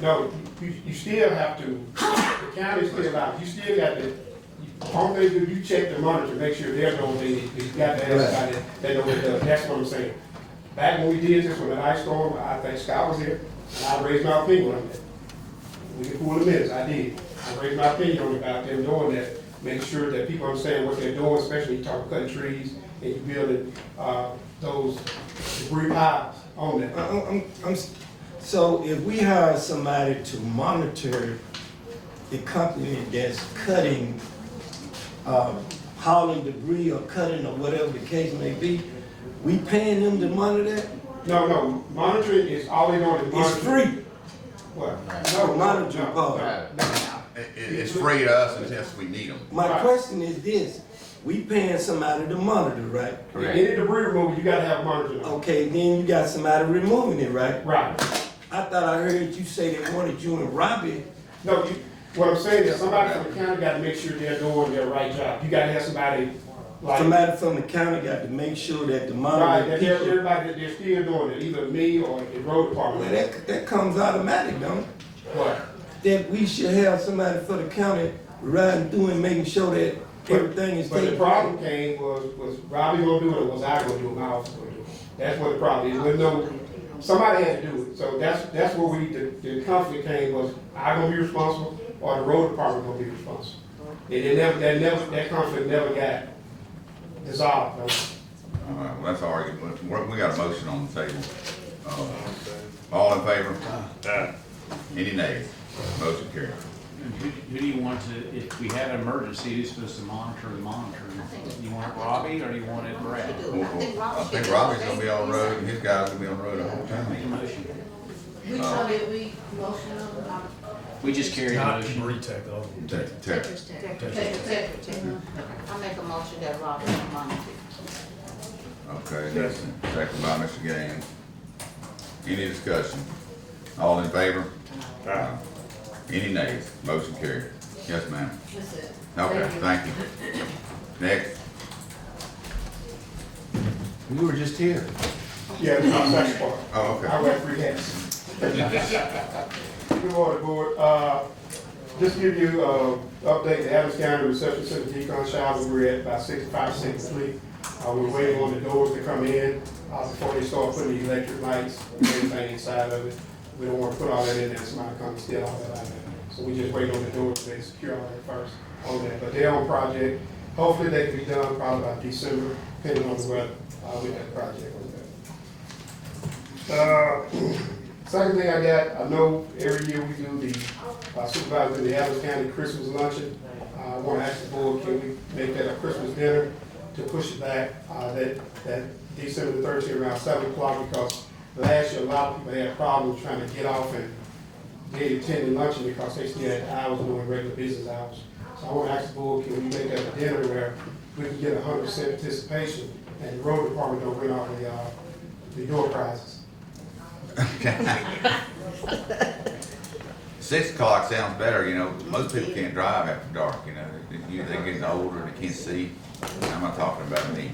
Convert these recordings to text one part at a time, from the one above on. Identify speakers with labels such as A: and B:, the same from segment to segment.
A: No, you, you still have to, the county still out, you still got to, only do, you check the monitor, make sure they're doing, they, you got to ask somebody, they know what they're, doing. that's what I'm saying. Back when we did this with the ice storm, I think Scott was here, and I raised my finger on that. We can pull the minutes, I did. I raised my opinion on about them doing that, make sure that people understand what they're doing, especially you talk cutting trees and you building, uh, those debris piles on
B: I-
A: that.
B: I'm, I'm, I'm, s- so if we hire somebody to monitor the company that's cutting, um, hauling debris or cutting or whatever the case may be, we paying them to monitor that?
A: No, no, monitoring is all they doing is
B: It's
A: monitoring.
B: free.
A: What?
B: No, monitoring part.
A: no, no.
C: It, it- it's free to us unless we need them.
B: My
A: Right.
B: question is this, we paying somebody to monitor, right?
A: Any debris removal, you gotta have monitoring. on.
B: Okay, then you got somebody removing it, right?
A: Right.
B: I thought I heard you say they wanted you and Robbie.
A: No, you, what I'm saying is somebody from the county gotta make sure they're doing their right job. You gotta have somebody like.
B: Somebody from the county got to make sure that the
A: Right,
B: monitor
A: that they're,
B: people.
A: everybody, that they're still doing it, either me or the road
B: Well,
A: department.
B: that, that comes automatic, don't it?
A: What?
B: That we should have somebody for the county riding through and making sure that everything is
A: But the
B: taken.
A: problem came was, was Robbie gonna do it, or was I gonna do it, my office gonna do it? That's what the problem is, Well, no, somebody had to do it, so that's, that's where we, the, the conflict came was, I gonna be responsible, or the road department gonna be responsible? And it never, that never, that conflict never got dissolved, no.
C: All right, well, that's our argument, we, we got a motion on the table. Uh, All in favor? Any nays? Motion carried.
D: Who, who do you want to, if we have an emergency, who's supposed to monitor the monitoring? You want it Robbie or you want it Brad?
C: Well, well, I think Robbie's gonna be on the road, and his guys gonna be on the road the whole
D: Make a
C: time.
D: motion.
E: Which one did we motion on?
D: We just carried a
F: Not
D: motion.
F: retake though.
C: Take- take-
E: Tetris Tech. Tetris Tech. I make a motion that Robert and Monica.
C: Okay, that's second by Mr. Gaines. Any discussion? All in favor? Aye. Any nays? Motion carried. Yes, ma'am.
E: That's it.
C: Okay, thank you. Next. We were just here.
A: Yeah, that's the next part.
C: Oh, okay.
A: I wear three hats. Good morning, board. Uh, Just give you, uh, update, the Adams County Reception Center decon shower, we're at about sixty-five percent complete. Uh, we're waiting on the doors to come in, uh, before they start putting the electric lights, and everything inside of it. We don't wanna put all that in there, somebody come and steal all that out of there. So we just waiting on the doors, they secure all that first on that. But they're on project, hopefully they can be done probably by December, depending on the weather, uh, with that project on that. Uh, Second thing I got, I know every year we do the uh, supervisor, of the Adams County Christmas luncheon. Uh, I want to ask the board, can we make that a Christmas dinner to push it back, uh, that, that December thirteenth around seven o'clock? Because last year, a lot of people had problems trying to get off and they attended luncheon because they still had hours doing regular business hours. So I want to ask the board, can we make that a dinner where we can get hundred percent participation and the road department don't win all the, uh, the door prizes?
C: Six o'clock sounds better, you know, most people can't drive after dark, you know, They- you- they're getting older and they can't see. I'm not talking about me.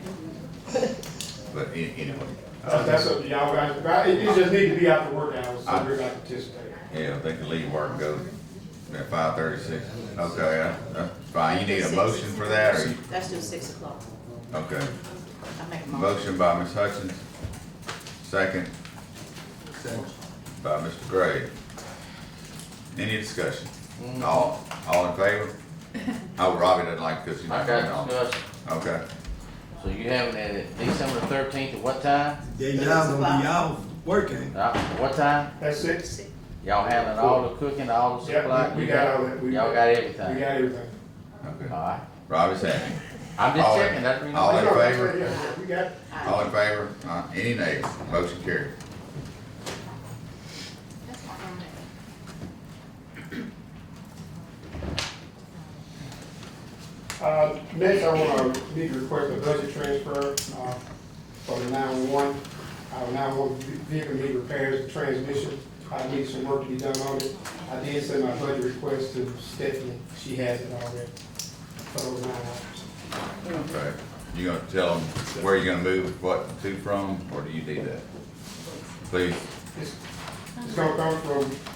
C: But a- anyway,
A: That's
C: uh,
A: that's up to y'all guys, but it, it just need to be out the work hours, so
C: I-
A: we're not participating.
C: yeah, they can leave work and go at five thirty-six. Okay, uh, uh, fine, you need a motion for that, or you,
E: That's due six o'clock.
C: okay.
E: I make a
C: Motion
E: motion.
C: by Ms. Hutchins, second by Mr. Gray. Any discussion? All, all in favor? Oh, Robbie doesn't like this, he's
G: I
C: not
G: got
C: going
G: a
C: on.
G: discussion.
C: Okay,
G: So you having it at December thirteenth at what time?
B: They y'all gonna be out working.
G: Uh, what time?
A: That's it?
G: Y'all having all the cooking, all the
A: Yeah,
G: supply?
A: we we
G: You
A: got all that, we, we
G: Y'all
A: got
G: got everything?
A: everything.
C: okay.
G: Alright.
C: Robbie's happy.
G: I'm just
C: All in-
G: checking, that's the reason.
C: all
G: why-
C: in favor?
A: Yeah, We got,
C: All in favor? Uh, any nays? Motion carried.
A: uh, next I wanna need to request a budget transfer, uh, for the nine-one-one. Our nine-one vehicle need repairs, and transmission, I need some work to be done on it. I did send my budget request to Stephanie, she has it already, uh, for those nine hours.
C: Okay. You gonna tell them where you're gonna move what to from, or do you do that? Please,
A: It's it's gonna come from